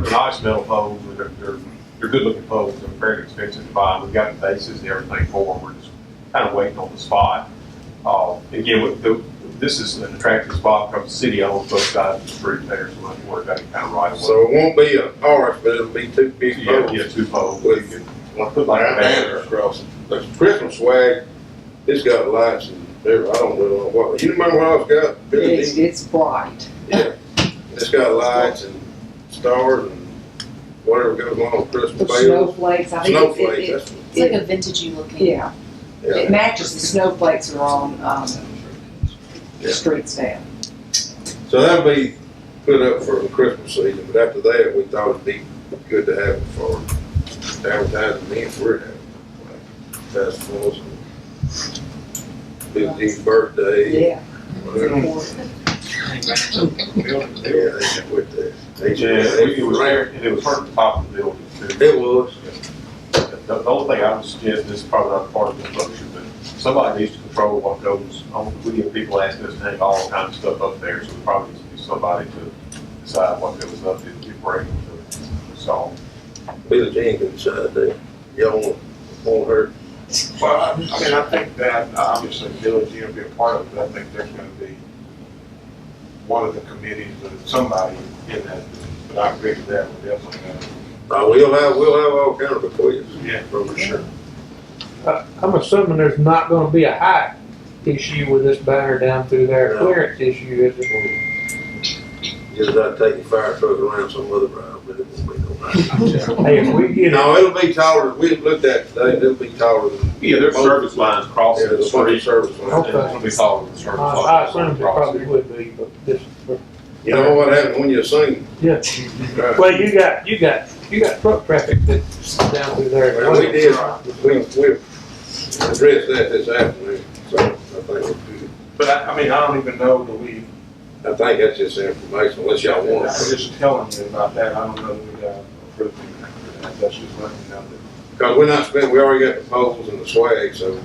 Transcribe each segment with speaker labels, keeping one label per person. Speaker 1: They're nice metal poles, and they're, they're, they're good looking poles, they're very expensive to buy, we've got the bases and everything for them, we're just kind of waiting on the spot. Uh, again, with the, this is an attractive spot, because the city owns both sides of the street there, so much work, that kind of right away.
Speaker 2: So it won't be an arch, but it'll be two big
Speaker 1: Yeah,
Speaker 2: poles.
Speaker 1: yeah, two poles.
Speaker 2: With-
Speaker 1: You
Speaker 2: Like the banners across it. The Christmas swag, it's got lights and everything. I don't really know what, you remember what I was got? Billy
Speaker 3: It's,
Speaker 2: Dean?
Speaker 3: it's bright.
Speaker 2: Yeah. It's got lights and stars and whatever goes on with
Speaker 3: The
Speaker 2: Christmas bells.
Speaker 3: snowflakes, I think it- it,
Speaker 2: Snowflakes,
Speaker 3: it,
Speaker 2: that's,
Speaker 4: It's like a vintagey looking.
Speaker 3: yeah, it
Speaker 2: yeah.
Speaker 3: matches the snowflakes that are on, um,
Speaker 2: Yeah.
Speaker 3: the streets now.
Speaker 2: So that'll be put up for the Christmas season, but after that, we thought it'd be good to have it for advertising events we're having. like Festivals, and Billy Dean's birthday,
Speaker 3: Yeah.
Speaker 2: whatever. Yeah, they should put that. They
Speaker 1: Yeah,
Speaker 2: should-
Speaker 1: it was
Speaker 2: Right.
Speaker 1: rare, and it was hurt the top of the building too.
Speaker 2: It was.
Speaker 1: The, the only thing I would suggest, this is probably not part of the structure, but somebody needs to control what goes on. We get people asking us to hang all kinds of stuff up there, so we probably needs to be somebody to decide what goes up if if we're able to solve.
Speaker 2: Billy Jean can decide that. Y'all want, want her.
Speaker 5: Well, I I mean, I think that uh, obviously Village Inn will be a part of it, but I think there's gonna be one of the committees or somebody in that, but I agree with that, we're definitely gonna.
Speaker 2: Uh, we'll have, we'll have all kinds of requests.
Speaker 5: Yeah.
Speaker 2: For sure.
Speaker 6: I'm assuming there's not gonna be a height issue with this banner down through there,
Speaker 2: No.
Speaker 6: clearance issue, is it?
Speaker 2: Just about taking fire trucks around some other round, but it won't be no nice.
Speaker 6: Hey, if we get it,
Speaker 2: No, it'll be taller, we looked at it today, it'll be taller than.
Speaker 1: Yeah, there's
Speaker 2: both-
Speaker 1: service lines crossing the
Speaker 2: Yeah, the funny
Speaker 1: street.
Speaker 2: service line.
Speaker 1: and It's gonna be following the
Speaker 6: I,
Speaker 1: service
Speaker 6: Uh, I assume
Speaker 1: lines.
Speaker 6: it probably would be, but this,
Speaker 2: You know what happened when you sing?
Speaker 6: yeah.
Speaker 2: Right.
Speaker 6: Well, you got, you got, you got truck traffic that's down through there.
Speaker 2: Well, we did, we, we addressed that this afternoon, so I think we're good.
Speaker 5: But I, I mean, I don't even know that we,
Speaker 2: I think that's just information, unless y'all
Speaker 5: I'm
Speaker 2: want. it.
Speaker 5: just telling you about that, I don't know that we got approved or not for that, that's just letting you know that.
Speaker 2: Cause we're not spending, we already got the poles and the swag, so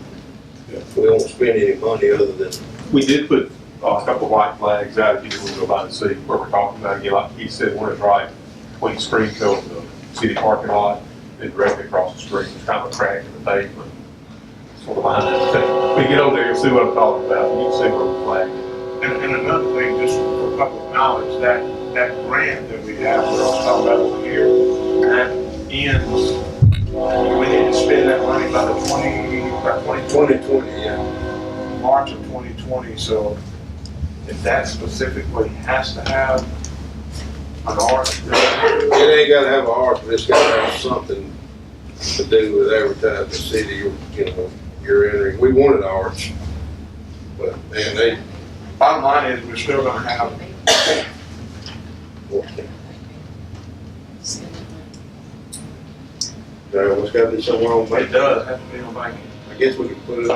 Speaker 5: Yeah.
Speaker 2: we won't spend any money other than,
Speaker 1: We did put uh, a couple of white flags out, if you want to go by and see where we're talking about, again, like he said, one is right between Springfield and the city parking lot, and directly across the street, it's kind of a crack in the pavement. Sort of line that thing. We get over there, and see what I'm talking about, you can see where the flag is.
Speaker 5: And, and another thing, just for public knowledge, that, that grant that we have, we're all talking about over here, that ends, we need to spend that money by the twenty, by twenty
Speaker 2: twenty twenty, yeah.
Speaker 5: March of 2020, so if that specifically has to have an art,
Speaker 2: It ain't gotta have a heart, but it's gotta have something to do with advertising the city, you you know, you're entering, we wanted ours. But, man, they,
Speaker 5: bottom line is, we're still gonna have,
Speaker 2: there was gotta be somewhere on
Speaker 5: it
Speaker 2: Main,
Speaker 5: does have to be on Bank.
Speaker 2: I guess we could put it in,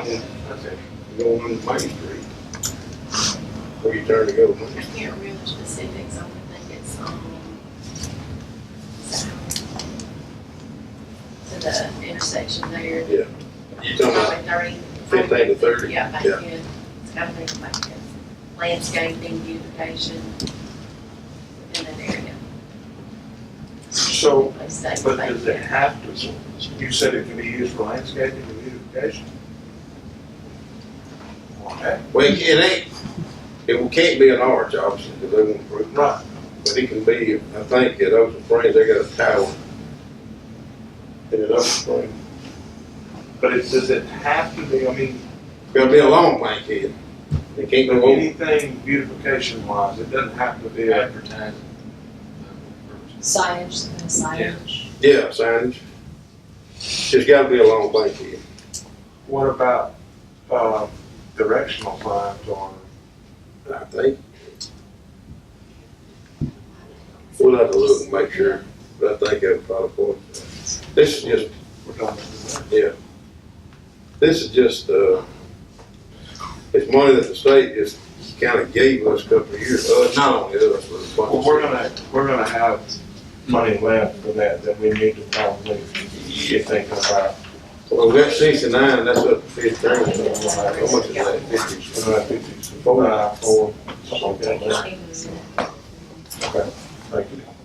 Speaker 5: That's it.
Speaker 2: go on Main Street. Where you turn to go,
Speaker 4: I can't remember specifics, I would think it's, um, south. To the intersection there.
Speaker 2: you talking about
Speaker 4: Highway thirty.
Speaker 2: fifteen to thirty?
Speaker 4: Yeah, back
Speaker 2: Yeah.
Speaker 4: in, it's gotta be back in, landscaping, beautification, in that area.
Speaker 5: So,
Speaker 4: They stay
Speaker 5: but
Speaker 4: back
Speaker 5: does it
Speaker 4: there.
Speaker 5: have to, you said it can be used for landscaping and beautification? Okay,
Speaker 2: Well, it ain't, it can't be an orange option, because they won't approve.
Speaker 5: right,
Speaker 2: But it can be, I think at Ocean Springs, they got a tower. And at Ocean Springs,
Speaker 5: but it, does it have to be, I mean,
Speaker 2: gotta be a long bank here. They can't go over.
Speaker 5: anything beautification wise, it doesn't have to be a
Speaker 7: advertising.
Speaker 4: Signage, and signage.
Speaker 2: Yeah, signage. Just gotta be a long bank here.
Speaker 5: What about, uh, directional signs on,
Speaker 2: I think. We'll have to look and make sure, but I think that'd probably, work. this is just,
Speaker 5: we're talking about
Speaker 2: this is just, uh, it's money that the state just kinda gave us a couple of years, uh, not only us, but. a bunch of
Speaker 5: Well, we're gonna, we're gonna have money left for that, that we need to probably get thinking about.
Speaker 2: Well, we got sixty-nine, that's up to fifteen. How much is that?
Speaker 5: We're
Speaker 2: 50?
Speaker 5: gonna have fifty, four, nine, four, something like that.
Speaker 4: Even
Speaker 5: Okay, thank you.